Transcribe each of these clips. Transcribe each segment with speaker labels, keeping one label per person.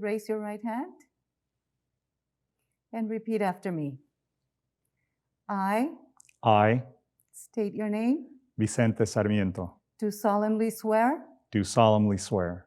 Speaker 1: raise your right hand and repeat after me. I
Speaker 2: I,
Speaker 1: state your name,
Speaker 2: Vicente Sarmiento,
Speaker 1: do solemnly swear
Speaker 2: do solemnly swear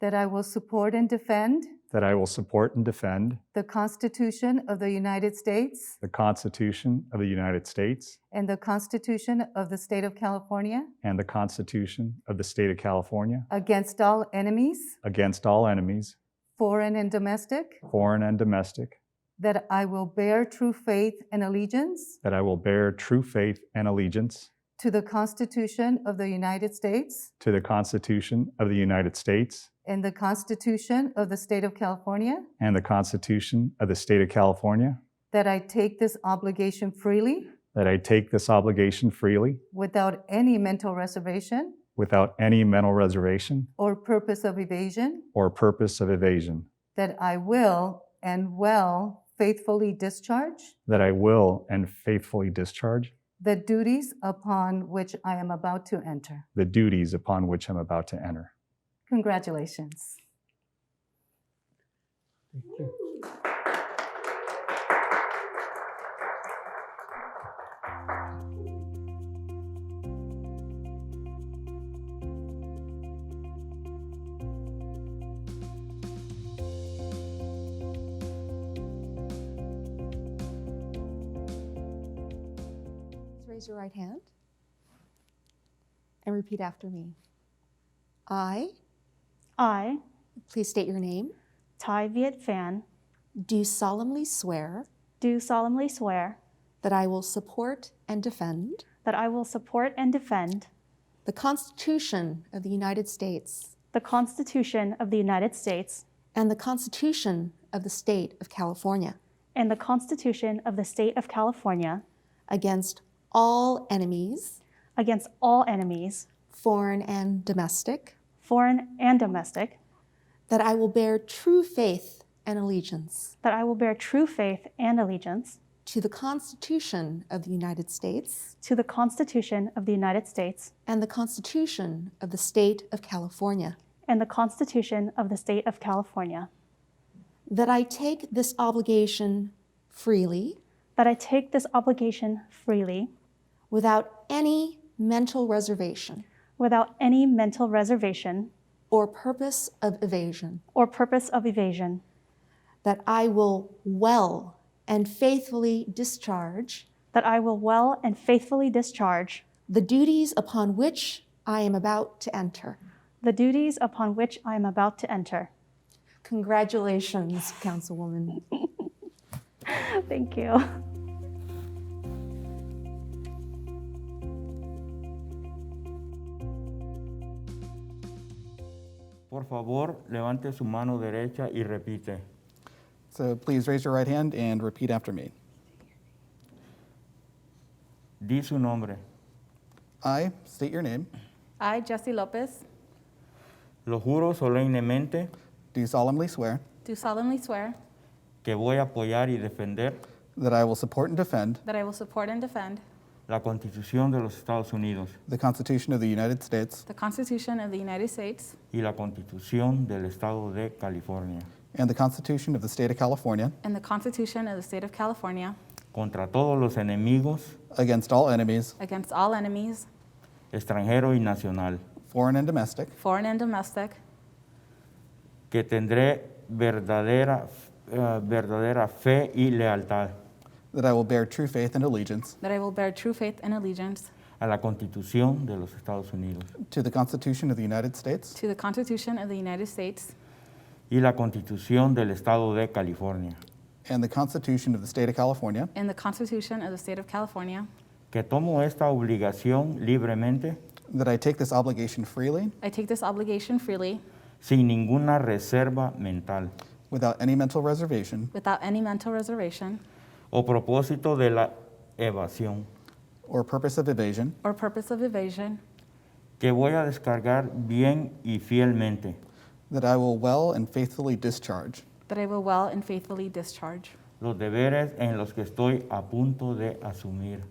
Speaker 1: that I will support and defend
Speaker 2: that I will support and defend
Speaker 1: the Constitution of the United States
Speaker 2: the Constitution of the United States
Speaker 1: and the Constitution of the State of California
Speaker 2: and the Constitution of the State of California
Speaker 1: against all enemies,
Speaker 2: against all enemies,
Speaker 1: foreign and domestic,
Speaker 2: foreign and domestic,
Speaker 1: that I will bear true faith and allegiance
Speaker 2: that I will bear true faith and allegiance
Speaker 1: to the Constitution of the United States
Speaker 2: to the Constitution of the United States
Speaker 1: and the Constitution of the State of California,
Speaker 2: and the Constitution of the State of California,
Speaker 1: that I take this obligation freely
Speaker 2: that I take this obligation freely
Speaker 1: without any mental reservation
Speaker 2: without any mental reservation
Speaker 1: or purpose of evasion,
Speaker 2: or purpose of evasion,
Speaker 1: that I will and will faithfully discharge
Speaker 2: that I will and faithfully discharge
Speaker 1: the duties upon which I am about to enter.
Speaker 2: the duties upon which I'm about to enter.
Speaker 1: Congratulations.
Speaker 3: Please Raise your right hand and repeat after me. I,
Speaker 4: I,
Speaker 3: please state your name,
Speaker 4: Tai Viet Phan,
Speaker 3: do solemnly swear
Speaker 4: do solemnly swear
Speaker 3: that I will support and defend
Speaker 4: that I will support and defend
Speaker 3: the Constitution of the United States
Speaker 4: the Constitution of the United States
Speaker 3: and the Constitution of the State of California
Speaker 4: and the Constitution of the State of California
Speaker 3: against all enemies,
Speaker 4: against all enemies,
Speaker 3: foreign and domestic,
Speaker 4: foreign and domestic,
Speaker 3: that I will bear true faith and allegiance
Speaker 4: that I will bear true faith and allegiance
Speaker 3: to the Constitution of the United States
Speaker 4: to the Constitution of the United States
Speaker 3: and the Constitution of the State of California.
Speaker 4: and the Constitution of the State of California,
Speaker 3: That I take this obligation freely
Speaker 4: that I take this obligation freely
Speaker 3: without any mental reservation
Speaker 4: without any mental reservation
Speaker 3: or purpose of evasion.
Speaker 4: or purpose of evasion,
Speaker 3: That I will well and faithfully discharge
Speaker 4: that I will well and faithfully discharge
Speaker 3: the duties upon which I am about to enter.
Speaker 4: the duties upon which I am about to enter.
Speaker 3: Congratulations, Councilwoman.
Speaker 4: Thank you.
Speaker 5: Por favor, levante su mano derecha y repite.
Speaker 6: So please raise your right hand and repeat after me.
Speaker 5: Di su nombre.
Speaker 6: I state your name,
Speaker 7: I, Jesse Lopez,
Speaker 5: Lo juro solemnemente
Speaker 6: do solemnly swear
Speaker 7: do solemnly swear
Speaker 5: que voy a apoyar y defender
Speaker 6: that I will support and defend
Speaker 7: that I will support and defend
Speaker 5: la Constitución de los Estados Unidos
Speaker 6: the Constitution of the United States
Speaker 7: the Constitution of the United States
Speaker 5: y la Constitución del Estado de California
Speaker 6: and the Constitution of the State of California
Speaker 7: and the Constitution of the State of California
Speaker 5: contra todos los enemigos,
Speaker 6: against all enemies,
Speaker 7: against all enemies,
Speaker 5: extranjero y nacional,
Speaker 6: foreign and domestic,
Speaker 7: foreign and domestic,
Speaker 5: que tendré verdadera, eh, verdadera fe y lealtad
Speaker 6: that I will bear true faith and allegiance
Speaker 7: that I will bear true faith and allegiance
Speaker 5: a la Constitución de los Estados Unidos
Speaker 6: to the Constitution of the United States
Speaker 7: to the Constitution of the United States
Speaker 5: y la Constitución del Estado de California.
Speaker 6: and the Constitution of the State of California,
Speaker 7: and the Constitution of the State of California.
Speaker 5: que tomo esta obligación libremente,
Speaker 6: that I take this obligation freely
Speaker 7: I take this obligation freely
Speaker 5: sin ninguna reserva mental
Speaker 6: without any mental reservation
Speaker 7: without any mental reservation
Speaker 5: o propósito de la evasión,
Speaker 6: or purpose of evasion,
Speaker 7: or purpose of evasion,
Speaker 5: que voy a descargar bien y fielmente
Speaker 6: that I will well and faithfully discharge
Speaker 7: that I will well and faithfully discharge
Speaker 5: los deberes en los que estoy a punto de asumir.